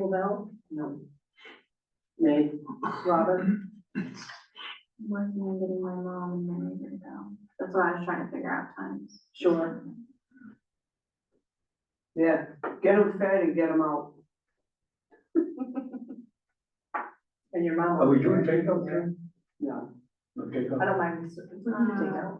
Bell, No. Nate, Robert, Working on getting my mom and then I to go. That's what I was trying to figure out times. sure. yeah, get them fed and get them out. And your mom. Are we doing takeout too? No, No I takeout? don't mind, it's, it's not a takeout. Uh.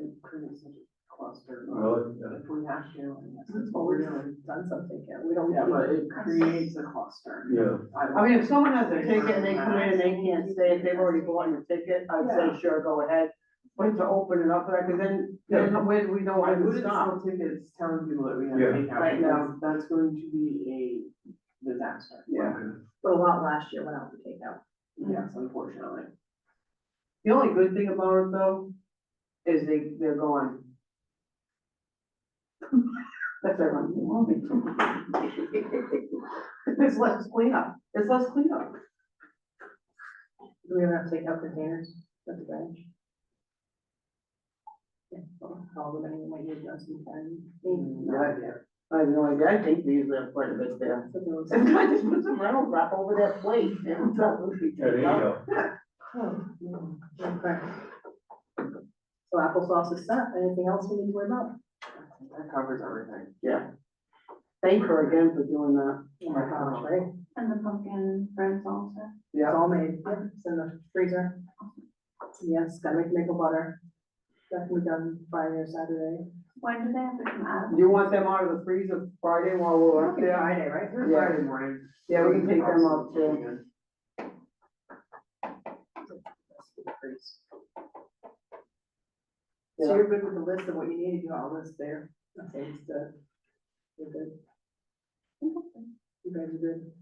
it creates such a cluster. Really? Yeah. If we have to, I guess It's that's what we're always doing. done something, yeah, we don't. Yeah, but it creates a cluster. Yeah, don't- I mean, if someone has a ticket and they come in and they can't stay, if they've already bought your ticket, I'd say sure, go ahead. But to open it up, like, 'cause then, then when we know I when to wouldn't stop. sell tickets telling people that we Yeah. have takeout. Right now. because That's going to be a disaster. Yeah. But a lot last year went out for takeout. Yes, unfortunately. The only good thing about it though, is they, they're going. That's everyone, you want me It's less cleanup, it's less cleanup. Do we ever have takeout containers at the bench? Yeah, well, All the many, what you've done Mm, sometimes. yeah, yeah. I have no idea, I think these are quite a bit there. So there was- Some guy just put some rental wrap over that plate and it's not moving. there you go. Oh, no, Okay. So applesauce is set, anything else we need to worry about? That covers everything. Thank her again for doing that. Oh my gosh, right? And the pumpkin breads also. It's all made, yep, it's in the freezer. Yes, gotta make maple butter. Definitely done Friday or Saturday. When do they have to come out? Do you want them out of the freezer Friday while we're up there? Friday, right? They're Yeah. Friday morning. Yeah, we can take them up too. So you're good with the list of what you need, you got all this there, that seems to, you're good. You guys are good,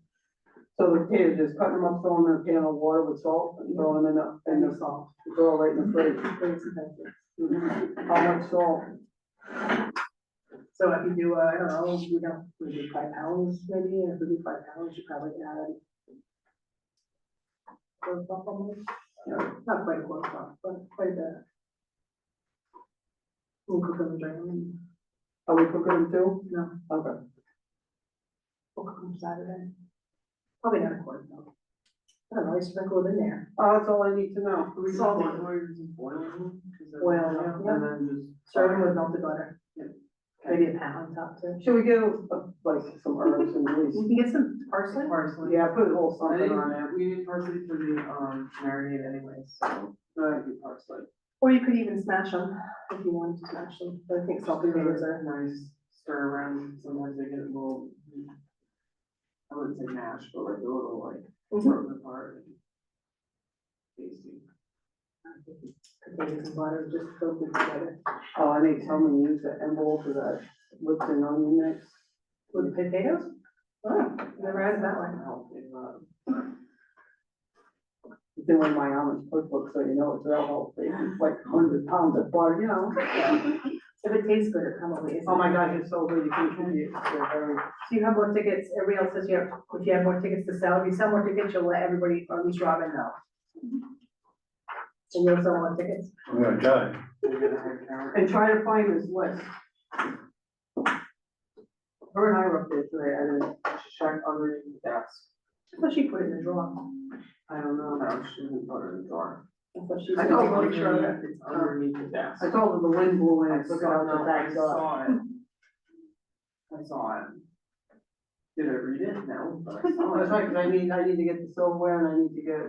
So the kids, just cutting them up, throwing them in a can of water with salt and throwing it up and and the just salt, throw it right in the fridge. bring some pencils. How much salt? So if you do, uh, I don't know, we don't, we do five pounds maybe, and if we do five pounds, you probably add. Close up almost, No, not quite close up, but quite a bit. We'll cook them and drain them, and Are we cooking them too? No. Okay. we'll cook them Saturday. Probably not a quart though. I don't know, you sprinkle it in there. Oh, that's all I need to know. We just Salt. want lawyers to boil them, 'cause they're- Boil them, yeah. And then just. Serve them with melted butter. Yep. Maybe a pound top too. Should we get uh, like some herbs and leaves? You can get some parsley. Parsley. Yeah, put a little I something on it. think we need parsley for the, um, marinade anyway, so that'd be parsley. Or you could even smash them if you wanted to smash them, but I think salt and Stir- potatoes are, Nice stir around, sometimes they get a little. I wouldn't say mashed, but like a little like Mm-hmm. broken apart. and Tasty. potatoes and butter, just cook them together. Oh, I need someone to use the envelope for that Lipton onion mix. With potatoes? Oh, never had it that way. Help in, uh, It's in one of my almond cookbook, so you know it's real healthy. It's like hundred pounds of butter, you know? If it tastes good, it probably is. Oh my gosh, it's so good. You can contribute. They're very. So you have more tickets, everybody else says you have, if you have more tickets to sell, if you sell more tickets, you'll let everybody, or at least Robin know. And you'll sell more tickets? I'm gonna die. we're gonna have carrot. And try to find this list. Her and I were up there today. I didn't Check underneath the desk. I thought she put it in the drawer. I don't know, no, she didn't put it in the drawer. I thought she I said. don't know. make sure Underneath- that- It's underneath the desk. I told her the wind blew in, I I took it saw- out no, the back I door. saw it. I saw it. Did I read it? No, but I That's saw right, it. 'cause I need, I need to get the silverware and I need to get,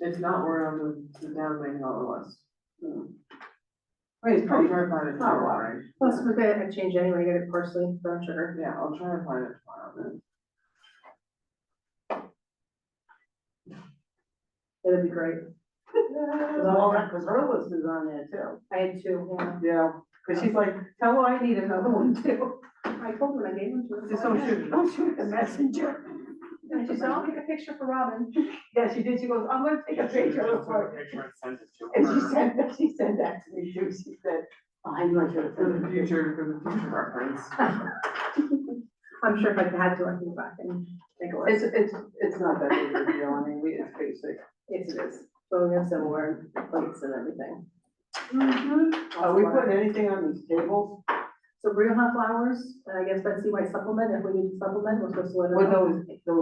It's not where on the, the down main on the list. um, wait, it's I'll try pretty, to find it not a lot. tomorrow, right? Plus, we're gonna have change anyway, get it parsley, brown sugar. Yeah, I'll try to find it tomorrow then. It'll be great. all that, cause her list is on there too. I had two, yeah. Yeah, cause she's like, tell her I need another one too. I told them I gave them to her. Just don't shoot, don't shoot the messenger. And she said, I'll take a picture for Robin. Yeah, she did, she goes, I'm gonna take a picture of her. and send it to And she said, that she said that to me too, she said, I know I should have For done the future, for the future reference. I'm sure if I had to, I can go back and take a look. It's, it's, it's not that big of a deal, I mean, we, it's basic. Yes, it is. So we have some more plates and everything. Oh, Uh, Are we putting anything on these tables So Brio Hot Flowers, and I guess Betsy might supplement, if we need to supplement, we're supposed to let her know. with those, those